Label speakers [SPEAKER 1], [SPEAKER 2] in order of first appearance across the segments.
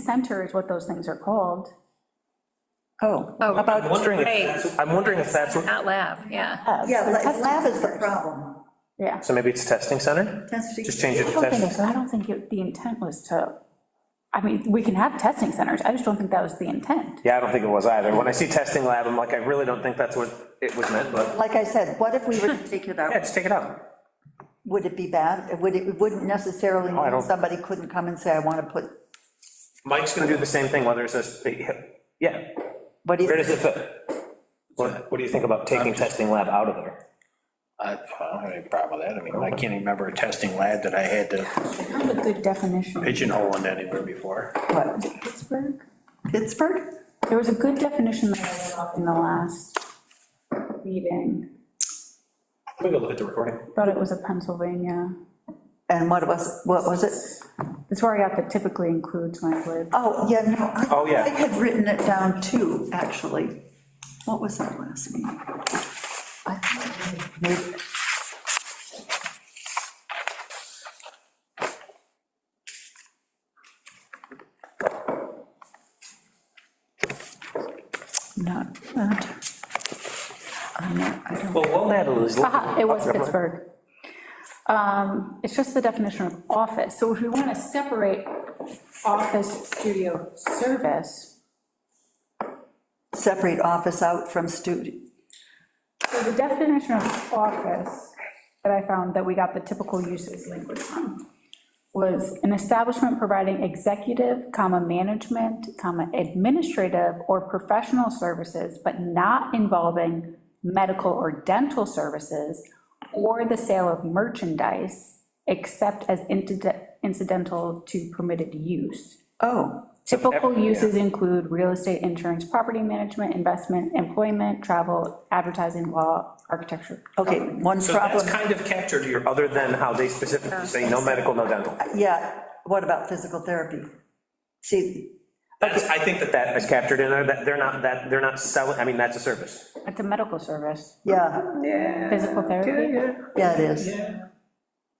[SPEAKER 1] center is what those things are called.
[SPEAKER 2] Oh,
[SPEAKER 3] Oh,
[SPEAKER 2] about,
[SPEAKER 4] I'm wondering if
[SPEAKER 3] Right.
[SPEAKER 4] that's- I'm wondering if that's, what-
[SPEAKER 3] Not lab, yeah.
[SPEAKER 2] labs.
[SPEAKER 5] Yeah,
[SPEAKER 2] The
[SPEAKER 5] la-
[SPEAKER 2] test
[SPEAKER 5] lab is the
[SPEAKER 2] first.
[SPEAKER 5] problem.
[SPEAKER 1] Yeah.
[SPEAKER 4] so maybe it's testing center?
[SPEAKER 5] Testing-
[SPEAKER 4] Just change it
[SPEAKER 1] I
[SPEAKER 4] to
[SPEAKER 1] don't
[SPEAKER 4] testing.
[SPEAKER 1] think, I don't think it- the intent was to, I mean, we can have testing centers, I just don't think that was the intent.
[SPEAKER 4] Yeah, I don't think it was either. When I see testing lab, I'm like, I really don't think that's what it was meant, but,
[SPEAKER 5] Like I said, what if we were to take it
[SPEAKER 4] yeah,
[SPEAKER 5] out?
[SPEAKER 4] just take it out.
[SPEAKER 5] Would it be bad? Would it, it wouldn't necessarily
[SPEAKER 4] I
[SPEAKER 5] mean
[SPEAKER 4] don't-
[SPEAKER 5] somebody couldn't come and say, I want to put,
[SPEAKER 4] Mike's gonna do the same thing, whether it says, yeah,
[SPEAKER 5] what do
[SPEAKER 4] where
[SPEAKER 5] you,
[SPEAKER 4] does it fit? What, what do you think about taking testing lab out of there?
[SPEAKER 6] I I don't have any problem with that. I mean, I can't remember a testing lab that I had to
[SPEAKER 1] Kind of a good definition.
[SPEAKER 6] pigeonhole into anywhere before.
[SPEAKER 1] Was it Pittsburgh?
[SPEAKER 5] Pittsburgh?
[SPEAKER 1] There was a good definition that I read off in the last meeting,
[SPEAKER 4] Let me go look at the recording.
[SPEAKER 1] thought it was a Pennsylvania.
[SPEAKER 5] And what was, what was it?
[SPEAKER 1] That's where I got the typically includes language.
[SPEAKER 5] Oh, yeah, no. I-
[SPEAKER 4] Oh, yeah.
[SPEAKER 5] I had written it down too, actually. What was that last meeting? I think I made- Not that. I'm not, I don't.
[SPEAKER 4] Well, while Natalie's looking.
[SPEAKER 1] Aha, it was Pittsburgh. Um, It's just the definition of office. So if we want to separate office, studio, service,
[SPEAKER 5] separate office out from studio.
[SPEAKER 1] so the definition of office that I found that we got the typical uses language from was an establishment providing executive, comma, management, comma, administrative or professional services, but not involving medical or dental services or the sale of merchandise, except as inted- incidental to permitted use.
[SPEAKER 5] Oh,
[SPEAKER 1] Typical uses include real estate, insurance, property management, investment, employment, travel, advertising, law, architecture.
[SPEAKER 5] okay, one
[SPEAKER 4] Oh, So that's
[SPEAKER 5] problem,
[SPEAKER 4] kind of captured here, other than how they specifically say no medical, no dental.
[SPEAKER 5] yeah, what about physical therapy? See,
[SPEAKER 4] That's, I think that that is captured in there, that they're not, that, they're not selling, I mean, that's a service.
[SPEAKER 1] It's a medical service,
[SPEAKER 5] yeah,
[SPEAKER 1] physical therapy.
[SPEAKER 5] yeah, it is.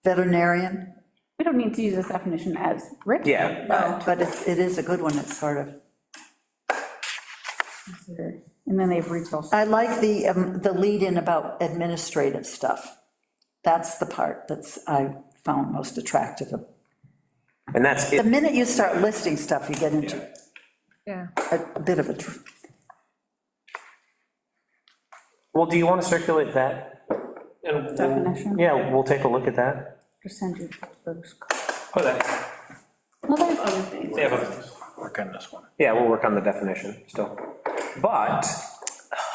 [SPEAKER 5] Veterinarian,
[SPEAKER 1] We don't need to use this definition as written.
[SPEAKER 4] Yeah.
[SPEAKER 5] but it's, it is a good one, it's sort of.
[SPEAKER 1] And then they have retail.
[SPEAKER 5] I like the, um, the lead-in about administrative stuff. That's the part that's, I found most attractive.
[SPEAKER 4] And that's
[SPEAKER 5] The
[SPEAKER 4] it.
[SPEAKER 5] minute you start listing stuff, you get into
[SPEAKER 3] Yeah.
[SPEAKER 5] a a bit of a, tr-
[SPEAKER 4] Well, do you want to circulate that? And we'll-
[SPEAKER 1] Definition.
[SPEAKER 4] Yeah, we'll take a look at that.
[SPEAKER 1] Percentage.
[SPEAKER 4] Oh, that-
[SPEAKER 1] Well, there's other things.
[SPEAKER 4] they have a-
[SPEAKER 6] Work on this one.
[SPEAKER 4] Yeah, we'll work on the definition still. But,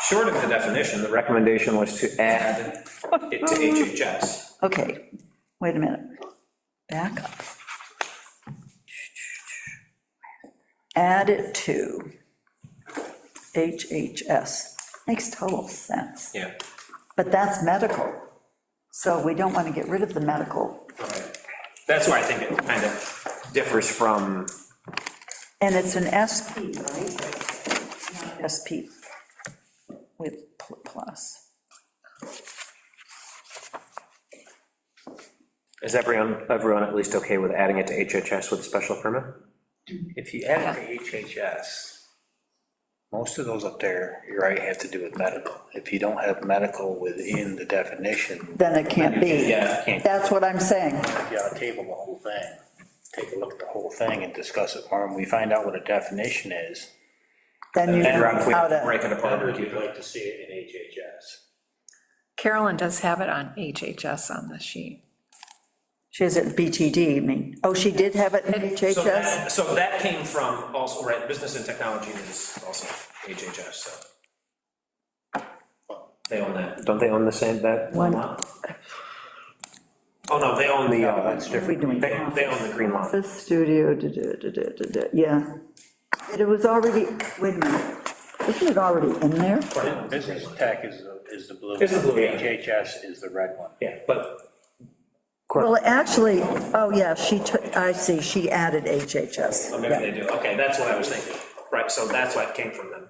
[SPEAKER 4] short of the definition, the recommendation was to add it to HHS.
[SPEAKER 5] okay, wait a minute. Back up. Add it to HHS. Makes total sense.
[SPEAKER 4] Yeah.
[SPEAKER 5] But that's medical. So we don't want to get rid of the medical.
[SPEAKER 4] That's where I think it kind of differs from,
[SPEAKER 5] And it's an SP, right? Not SP with pl- plus.
[SPEAKER 4] is everyone, everyone at least okay with adding it to HHS with a special permit?
[SPEAKER 6] If you add it to HHS, most of those up there, you're right, have to do with medical. If you don't have medical within the definition,
[SPEAKER 5] Then it can't be.
[SPEAKER 6] Yeah, can't.
[SPEAKER 5] That's what I'm saying.
[SPEAKER 6] you ought to table the whole thing. Take a look at the whole thing and discuss it more, and we find out what a definition is.
[SPEAKER 5] Then you
[SPEAKER 4] And
[SPEAKER 5] know
[SPEAKER 4] Rob, if we
[SPEAKER 5] how to,
[SPEAKER 4] break it apart,
[SPEAKER 6] Then
[SPEAKER 4] or
[SPEAKER 6] would
[SPEAKER 4] do
[SPEAKER 6] you
[SPEAKER 4] you-
[SPEAKER 6] like to see it in HHS?
[SPEAKER 3] Carolyn does have it on HHS on the sheet.
[SPEAKER 5] she has it BTD, you mean? Oh, she did have it in
[SPEAKER 4] So
[SPEAKER 5] HHS?
[SPEAKER 4] that- So that came from also, right, business and technology is also HHS, so. They own that. Don't they own the same, that?
[SPEAKER 5] One.
[SPEAKER 4] Oh, no, they own the, uh,
[SPEAKER 6] that's different.
[SPEAKER 5] We doing
[SPEAKER 4] they, they own the green lot.
[SPEAKER 5] The studio, da, da, da, da, da, da, yeah. But It was already, wait a minute, isn't it already in there?
[SPEAKER 6] Business tech is, the- is the blue.
[SPEAKER 4] Is the blue, yeah.
[SPEAKER 6] HHS is the red one.
[SPEAKER 4] Yeah, but.
[SPEAKER 5] Well, actually, oh, yeah, she took, I see, she added HHS.
[SPEAKER 4] Oh, Maybe they do, okay, that's what I was thinking, right, so that's why it came from them.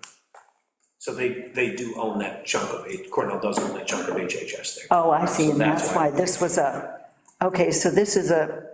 [SPEAKER 4] So they, they do own that chunk of, H- Cornell does own that chunk of HHS there.
[SPEAKER 5] Oh, I see, and
[SPEAKER 4] So that's
[SPEAKER 5] that's
[SPEAKER 4] why.
[SPEAKER 5] why this was a, okay, so this is a